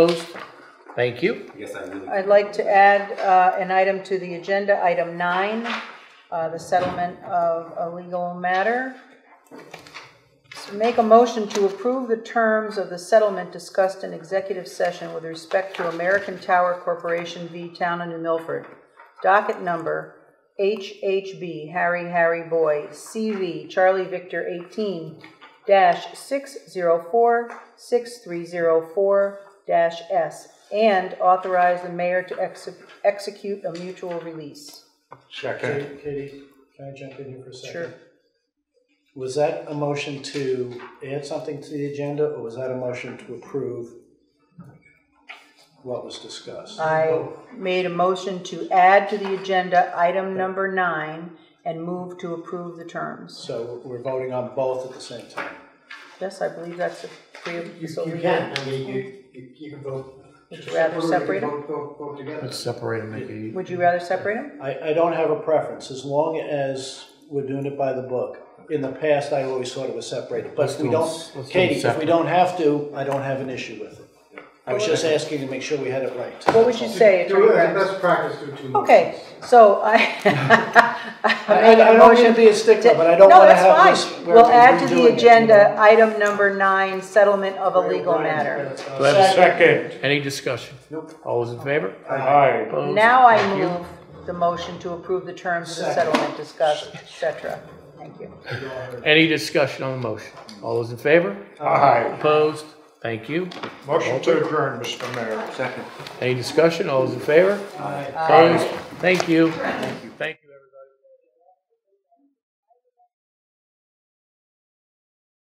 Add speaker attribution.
Speaker 1: Opposed? Thank you.
Speaker 2: I guess I really,
Speaker 3: I'd like to add uh, an item to the agenda, item nine, uh, the settlement of a legal matter. So Make a motion to approve the terms of the settlement discussed in executive session with respect to American Tower Corporation v. Town and New Milford. Docket number HHB Harry Harry Boy CV Charlie Victor 18 dash 604 6304 dash S and authorize the mayor to exe- execute a mutual release.
Speaker 4: Katie, Katie, can I jump in here for a second?
Speaker 3: Sure.
Speaker 4: Was that a motion to add something to the agenda, or was that a motion to approve what was discussed?
Speaker 3: I made a motion to add to the agenda item number nine and move to approve the terms.
Speaker 4: So we're voting on both at the same time.
Speaker 3: Yes, I believe that's the three of,
Speaker 5: You,
Speaker 3: so
Speaker 5: you
Speaker 3: we
Speaker 5: can, I mean, you, you- you can vote.
Speaker 3: Would you rather
Speaker 5: separately,
Speaker 3: separate them?
Speaker 5: Vote, vote, vote together.
Speaker 1: Let's separate and make it.
Speaker 3: Would you rather separate them?
Speaker 4: I, I don't have a preference, as long as we're doing it by the book. In the past, I always thought it was separated, but
Speaker 1: Let's
Speaker 4: if we
Speaker 1: do 'em-
Speaker 4: don't,
Speaker 1: let's do 'em
Speaker 4: Katie, if we
Speaker 1: separate.
Speaker 4: don't have to, I don't have an issue with it. I was just asking to make sure we had it right.
Speaker 3: What would you say,
Speaker 5: Do
Speaker 3: Attorney
Speaker 5: it, as
Speaker 3: Grimes?
Speaker 5: best practice, do two.
Speaker 3: Okay,
Speaker 5: motions.
Speaker 3: so I. I
Speaker 4: I, I-
Speaker 3: make a
Speaker 4: I don't mean to
Speaker 3: motion
Speaker 4: be a stickler, but I don't
Speaker 3: No,
Speaker 4: wanna
Speaker 3: that's
Speaker 4: have
Speaker 3: fine.
Speaker 4: this. where
Speaker 3: We'll
Speaker 4: we're
Speaker 3: add to
Speaker 4: redoing it,
Speaker 3: the
Speaker 4: you
Speaker 3: agenda,
Speaker 4: know?
Speaker 3: item number nine, settlement of a legal
Speaker 5: Brian,
Speaker 3: matter.
Speaker 5: that's,
Speaker 1: Do I
Speaker 5: uh,
Speaker 1: have a
Speaker 6: Second.
Speaker 1: Any discussion?
Speaker 5: Nope.
Speaker 1: All those in favor?
Speaker 6: Aye.
Speaker 1: Opposed?
Speaker 3: Now I
Speaker 1: Thank you.
Speaker 3: move the motion to approve the terms of the
Speaker 5: Second.
Speaker 3: settlement discussed, et cetera. Thank you.
Speaker 1: Any discussion on the motion? All those in favor?
Speaker 6: Aye.
Speaker 1: Opposed? Thank you.
Speaker 6: Motion to adjourn, Mr. Mayor.
Speaker 2: second.
Speaker 1: Any discussion? All those in favor? Opposed? Thank you. Thank you.